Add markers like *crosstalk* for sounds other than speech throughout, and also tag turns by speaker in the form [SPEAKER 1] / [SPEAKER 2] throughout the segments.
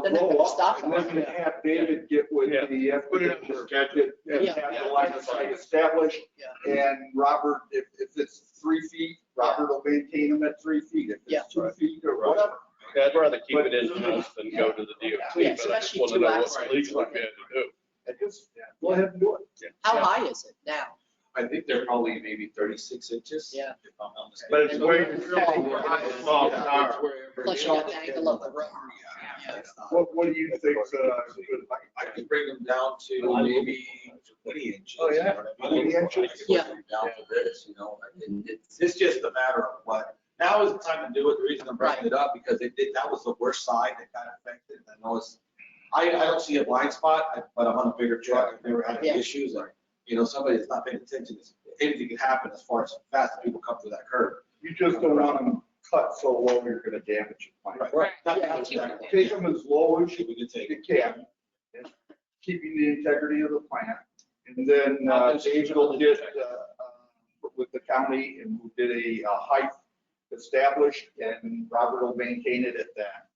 [SPEAKER 1] they're not gonna stop
[SPEAKER 2] We're gonna
[SPEAKER 1] us.
[SPEAKER 2] have David get with
[SPEAKER 3] Yeah.
[SPEAKER 2] the.
[SPEAKER 4] Put it up for schedule.
[SPEAKER 2] And have the line of sight established. And Robert, if, if it's three feet, Robert will maintain them at three feet. If
[SPEAKER 1] Yeah.
[SPEAKER 2] it's two feet or whatever.
[SPEAKER 3] Yeah, I'd rather keep it in house than go to the DOT, but I
[SPEAKER 1] Yeah,
[SPEAKER 3] just
[SPEAKER 1] especially
[SPEAKER 3] want to
[SPEAKER 1] two
[SPEAKER 3] know what's
[SPEAKER 1] hours.
[SPEAKER 3] legally fair to do.
[SPEAKER 2] And just, go ahead and do it.
[SPEAKER 1] How high is it now?
[SPEAKER 4] I think they're probably maybe thirty-six inches.
[SPEAKER 1] Yeah.
[SPEAKER 4] if I'm not mistaken.
[SPEAKER 5] But it's way
[SPEAKER 1] Yeah.
[SPEAKER 5] small
[SPEAKER 4] Yeah.
[SPEAKER 5] tower.
[SPEAKER 1] Plus you got the angle of the road. Yeah.
[SPEAKER 2] What, what do you think, uh,
[SPEAKER 4] I could bring them down to maybe twenty inches.
[SPEAKER 2] Oh, yeah.
[SPEAKER 4] you know what I mean?
[SPEAKER 2] 20 inches.
[SPEAKER 4] I could bring them Down to this, you know, and it- it's, it's just a matter of what, now is the time to do it, the reason I'm bringing it up, because they did, that was the worst side that got affected, and I know it's, I, I don't see a blind spot, I- but I'm on a bigger truck, I've never had any
[SPEAKER 1] Yeah.
[SPEAKER 4] issues, like, you know, somebody that's not paying attention, it's- anything can happen as far as fast as people come through that curve.
[SPEAKER 2] you just don't want them cut so low you're gonna damage your plant.
[SPEAKER 4] Right. That-
[SPEAKER 1] Yeah,
[SPEAKER 4] that's
[SPEAKER 1] keep it
[SPEAKER 4] exactly-
[SPEAKER 2] Take them as low as you
[SPEAKER 4] We could take it.
[SPEAKER 2] can, and keeping the integrity of the plant. And then uh, David will get uh, with the county and we did a uh, height established and Robert will maintain it at that.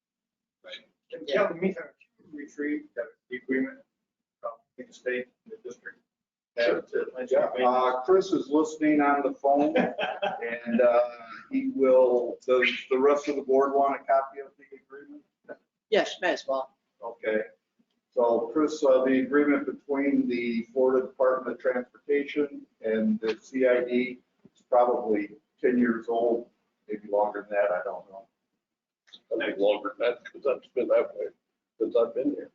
[SPEAKER 6] And tell me, uh, retrieve that agreement
[SPEAKER 2] um,
[SPEAKER 6] from the state and the district. That's it. Let's
[SPEAKER 2] Yeah,
[SPEAKER 6] wait.
[SPEAKER 2] uh, Chris is listening on the phone
[SPEAKER 4] *laughs*
[SPEAKER 2] and uh, he will, does the rest of the board want a copy of the agreement?
[SPEAKER 1] Yes, you may as well.
[SPEAKER 2] Okay. So Chris, uh, the agreement between the Florida Department of Transportation and the CID is probably 10 years old, maybe longer than that, I don't know.
[SPEAKER 3] I think longer than that, because I've been that way since I've been here.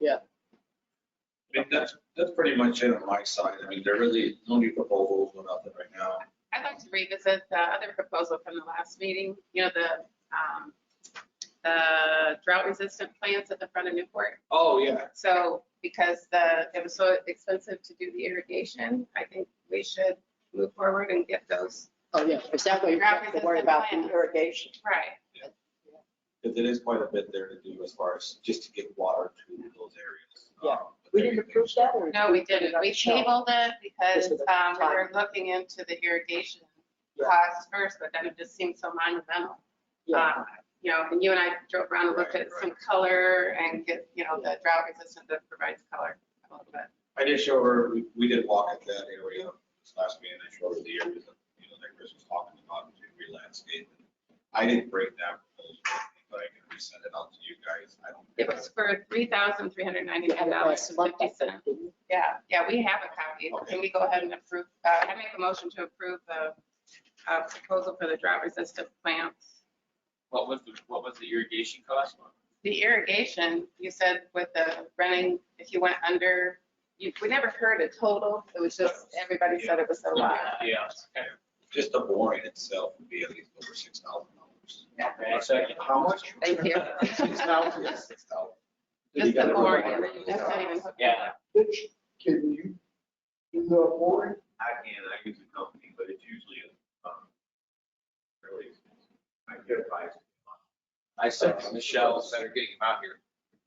[SPEAKER 2] Yeah.
[SPEAKER 4] I mean, that's, that's pretty much it on my side. I mean, there really, no new proposals went out there right now.
[SPEAKER 7] I'd like to revisit the other proposal from the last meeting, you know, the, um, the drought resistant plants at the front of Newport.
[SPEAKER 4] Oh, yeah.
[SPEAKER 7] So because the, it was so expensive to do the irrigation, I think we should move forward and get those.
[SPEAKER 1] Oh, yeah, because that way you don't have to worry about the irrigation.
[SPEAKER 7] Right.
[SPEAKER 4] Because it is quite a bit there to do as far as just to get water to those areas.
[SPEAKER 1] Yeah.
[SPEAKER 4] Um, but
[SPEAKER 1] We
[SPEAKER 4] there
[SPEAKER 1] didn't
[SPEAKER 4] you
[SPEAKER 1] approve that or?
[SPEAKER 7] No, we didn't. We
[SPEAKER 1] No.
[SPEAKER 7] tabled it because um, we were looking into the irrigation costs first, but then it just seemed so monumental.
[SPEAKER 1] Yeah.
[SPEAKER 7] Um, You know, and you and I drove around and looked at some color and get, you know, the drought resistant that provides color a little bit.
[SPEAKER 4] go. I did show her, we, we did walk at that area this last meeting. I showed her the area that, you know, that Chris was talking about, to re-landscape. I didn't bring that proposal, but I can resend it out to you guys. I don't.
[SPEAKER 7] It was for three thousand three hundred ninety-nine dollars and fifty cents. Yeah, yeah, we have a copy. Can we go ahead and approve, uh, I make a motion to approve the uh, proposal for the drought resistant plants.
[SPEAKER 8] What was the, what was the irrigation cost?
[SPEAKER 7] The irrigation, you said with the running, if you went under, you, we never heard a total. It was just, everybody said it was a lot.
[SPEAKER 8] Yeah.
[SPEAKER 4] Just the boring itself would be at least over six thousand
[SPEAKER 2] *laughs*
[SPEAKER 4] dollars.
[SPEAKER 2] How much?
[SPEAKER 7] Thank you.
[SPEAKER 4] Six thousand, yeah, six thousand.
[SPEAKER 7] Just the boring. That's not even hooked
[SPEAKER 8] Yeah.
[SPEAKER 7] up.
[SPEAKER 2] Bitch, can you do the boring?
[SPEAKER 8] I can, I use a company, but it's usually, um, really, I could advise.
[SPEAKER 4] I
[SPEAKER 8] said,
[SPEAKER 4] Michelle,
[SPEAKER 8] Better getting him out here.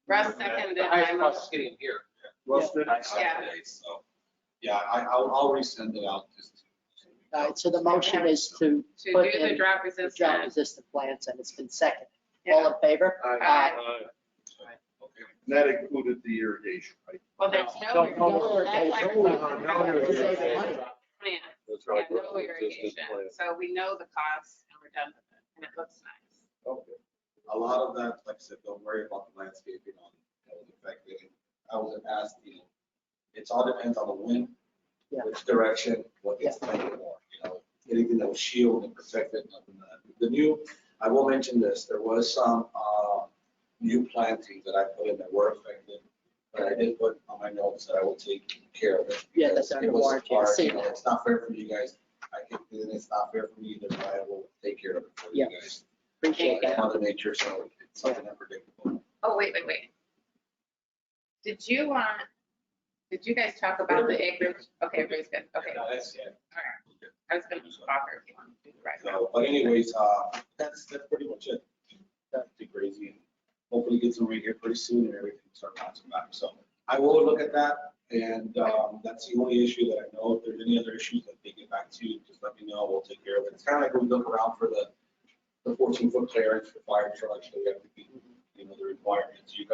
[SPEAKER 7] Russ seconded
[SPEAKER 8] The
[SPEAKER 7] my
[SPEAKER 8] highest cost is
[SPEAKER 7] motion.
[SPEAKER 8] getting him here.
[SPEAKER 2] Rusted?
[SPEAKER 7] Yeah.
[SPEAKER 4] So, yeah, I, I'll, I'll resend it out just. to-
[SPEAKER 1] All right, so the motion is to
[SPEAKER 7] To
[SPEAKER 1] put
[SPEAKER 7] do the
[SPEAKER 1] in
[SPEAKER 7] drought
[SPEAKER 1] the drought
[SPEAKER 7] resistant.
[SPEAKER 1] resistant plants and it's been seconded. All
[SPEAKER 7] Yeah.
[SPEAKER 1] in favor?
[SPEAKER 7] Aye.
[SPEAKER 4] Okay.
[SPEAKER 2] And that included the irrigation, right?
[SPEAKER 7] Well, there's
[SPEAKER 1] No,
[SPEAKER 7] no
[SPEAKER 1] no irrigation.
[SPEAKER 7] irrigation.
[SPEAKER 3] No irrigation.
[SPEAKER 7] Plan.
[SPEAKER 3] That's
[SPEAKER 7] Yeah,
[SPEAKER 3] right.
[SPEAKER 7] no
[SPEAKER 3] Resistant
[SPEAKER 7] irrigation.
[SPEAKER 3] plant.
[SPEAKER 7] So we know the cost and we're done with it and it looks nice.
[SPEAKER 2] Okay.
[SPEAKER 4] A lot of that, like I said, don't worry about the landscaping on, that was affected. I was asked, you know, it's all depends on the wind,
[SPEAKER 1] Yeah.
[SPEAKER 4] which direction, what gets planted more, you know, anything that was shielded and protected. nothing that- The new, I will mention this, there was some, uh, new plantings that I put in that were affected. But I did put on my notes that I will take care of it.
[SPEAKER 1] Yeah, that's
[SPEAKER 4] because it
[SPEAKER 1] under
[SPEAKER 4] was
[SPEAKER 1] warranty. I've
[SPEAKER 4] hard,
[SPEAKER 1] seen
[SPEAKER 4] you know,
[SPEAKER 1] that.
[SPEAKER 4] It's not fair for you guys. I think and it's not fair for me either, but I will take care of it for you
[SPEAKER 1] Yeah.
[SPEAKER 4] guys.
[SPEAKER 1] Appreciate that.
[SPEAKER 4] Mother nature, so it's something unpredictable.
[SPEAKER 7] Oh, wait, wait, wait. Did you want, did you guys talk about the acreage? Okay, everybody's good. Okay, all
[SPEAKER 4] Yeah, that's it.
[SPEAKER 7] right. I was gonna offer if you want to do the right now.
[SPEAKER 4] So, but anyways, uh, that's, that's pretty much it. That'd be crazy. and Hopefully get some rain here pretty soon and everything start bouncing back. So I will look at that. And, um, that's the only issue that I know. If there's any other issues that they get back to, you, just let me know. We'll take care of it. It's kind of like when we look around for the, the fourteen foot clearance for fire trucks. that we have to be, you know, the requirements. You